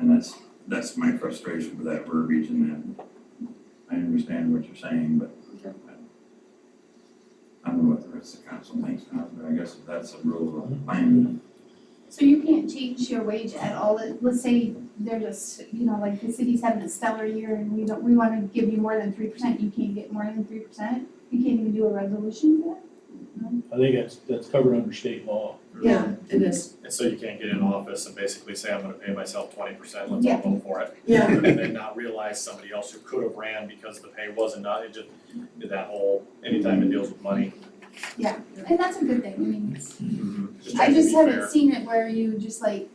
that's, that's my frustration with that verbiage and that. I understand what you're saying, but. Okay. I don't know what the rest of the council thinks, now, but I guess if that's the rule of mine, So you can't change your wage at all, Let- let's say they're just, you know, like the city's having a stellar year and we don't, we wanna give you more than three percent, you can't get more than three percent? You can't even do a resolution for I think that's, that's covered under state law. Yeah, it is, And so you can't get in office and basically say, I'm gonna pay myself twenty percent, let's Yeah. all vote for it. yeah, And then not realize somebody else who could have ran because the pay wasn't done, it just, did that whole, anytime it deals with money. that? And that's a good thing, I mean, it's- Mm-hmm. I trying to just be fair. haven't seen it where you just like,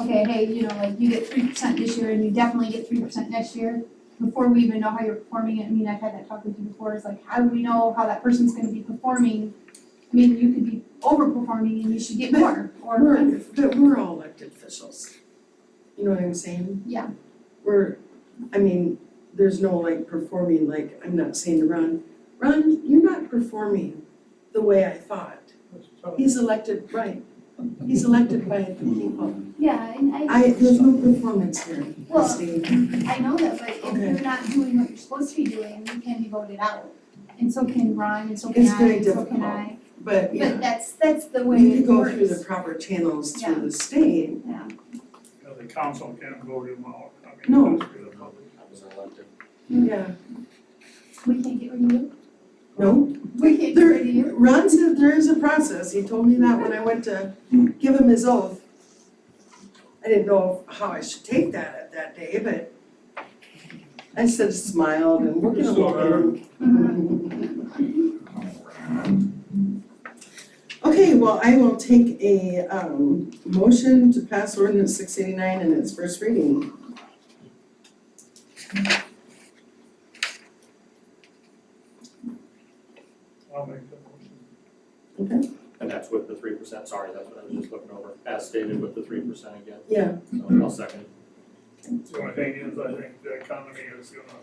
okay, hey, you know, like you get three percent this year and you definitely get three percent next year. Before we even know how you're performing it, I mean, I've had that talk with you before, it's like, how do we know how that person's gonna be performing? I mean, you could be overperforming and you should get more, or we're, but we're all elected officials. You know what I'm saying? Yeah. We're, I mean, there's no like performing, like, I'm not saying to Ron, Ron, you're not performing the way I thought. He's elected, right, he's elected by the people. Yeah, and I, I, there's no performance here, Christine. I know that, but if Okay. you're not doing what you're supposed to be doing, you can be voted out. And so can Ron, and so can It's I, very and so can difficult. I. But But yeah, that's, that's the way we need to it go works. through the proper channels Yeah. through the state. Yeah, Yeah, The council can't vote him out. I mean, No. that's through the public. Mm-hmm. Yeah. we can't get rid of you, No, we can't get There- rid of you. Ron said there is a process, he told me that when I went to give him his oath. I didn't know how I should take that at that day, but I said smiled and we're gonna Still learn. um, Okay, well, I will take a um motion to pass ordinance six eighty-nine in its first reading. I'll make the motion. And that's with the three percent, sorry, that's what I was just looking over, as stated with the three percent again, Yeah, so I'll second. The only thing is, I think the economy is gonna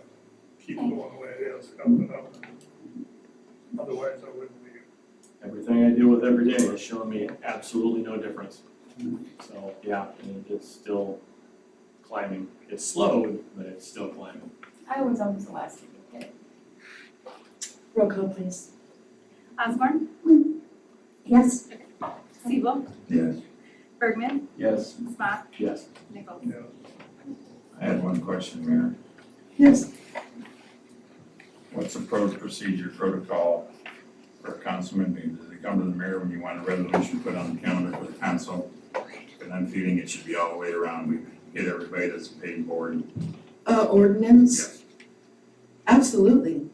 keep going the way it is, up and up. Otherwise, I wouldn't be. Everything I deal with every day is showing me absolutely no difference. So, yeah, and it's still climbing, it's slowed, but it's still climbing. I was always the last to get it. roll call please. Osborne, Mm. Yes. Siebel, yes, Bergman, Yes. Smock, Yes. Nichols. Yeah. I had one question, Mayor. Yes, What's the pro- procedure protocol for a councilman? Does it come to the mayor when you want a resolution put on the calendar for the council? And I'm feeling it should be all the way around. We hit everybody that's paid board. uh ordinance, absolutely.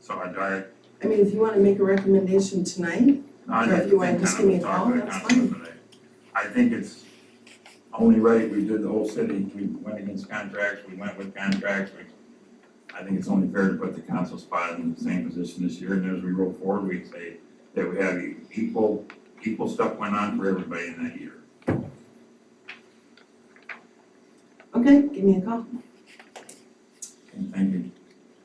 So I direct I mean, if you wanna make a recommendation tonight, I Or if you want to think just kind of give me a talk call, about that's concept, but I I think it's only right, we did the whole city, we went against contracts, we went with contracts, we. I think it's only fair to put the council spot in the same position this year, and as we roll forward, we say that we have equal, equal stuff went on for everybody in that year. okay, give me a call. And thank you.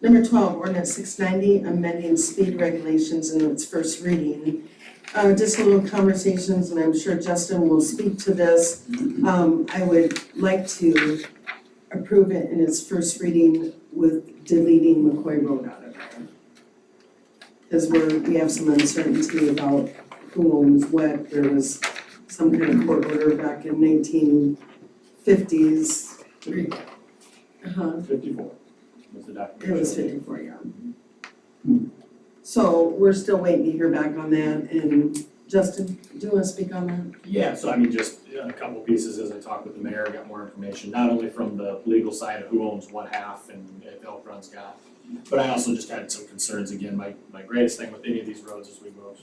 Number twelve, ordinance six ninety, amending speed regulations in its first reading. Uh, just a little conversations, and I'm sure Justin will speak to this. Um, I would like to approve it in its first reading with deleting McCoy Road out of there. Cause we're, we have some uncertainty about who owns what, there was some kind of court order back in nineteen fifties. Uh-huh. Fifty-four was the It document. was fifty-four, yeah. So we're still waiting to hear back on that, and Justin, do you wanna speak on that? Yeah, so I mean, just uh, a couple pieces as I talked with the mayor, got more information, not only from the legal side of who owns what half and if Elk Run's got. But I also just had some concerns, again, my, my greatest thing with any of these roads is we move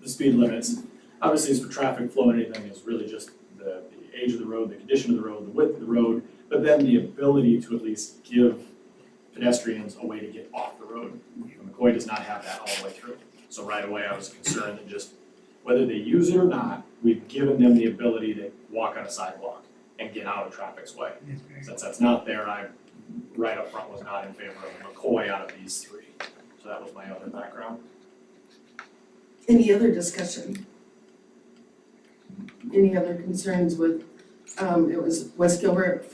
the speed limits. Obviously, it's for traffic flow and anything, is really just the, the age of the road, the condition of the road, the width of the road, but then the ability to at least give pedestrians a way to get off the road. McCoy does not have that all the way through. So right away, I was concerned that just whether they use it or not, we've given them the ability to walk on a sidewalk and get out of traffic's way. Since that's not there, I, right up front, was not in favor of McCoy out of these three. So that was my other background. Any other discussion? Any other concerns with, um, it was West Gilbert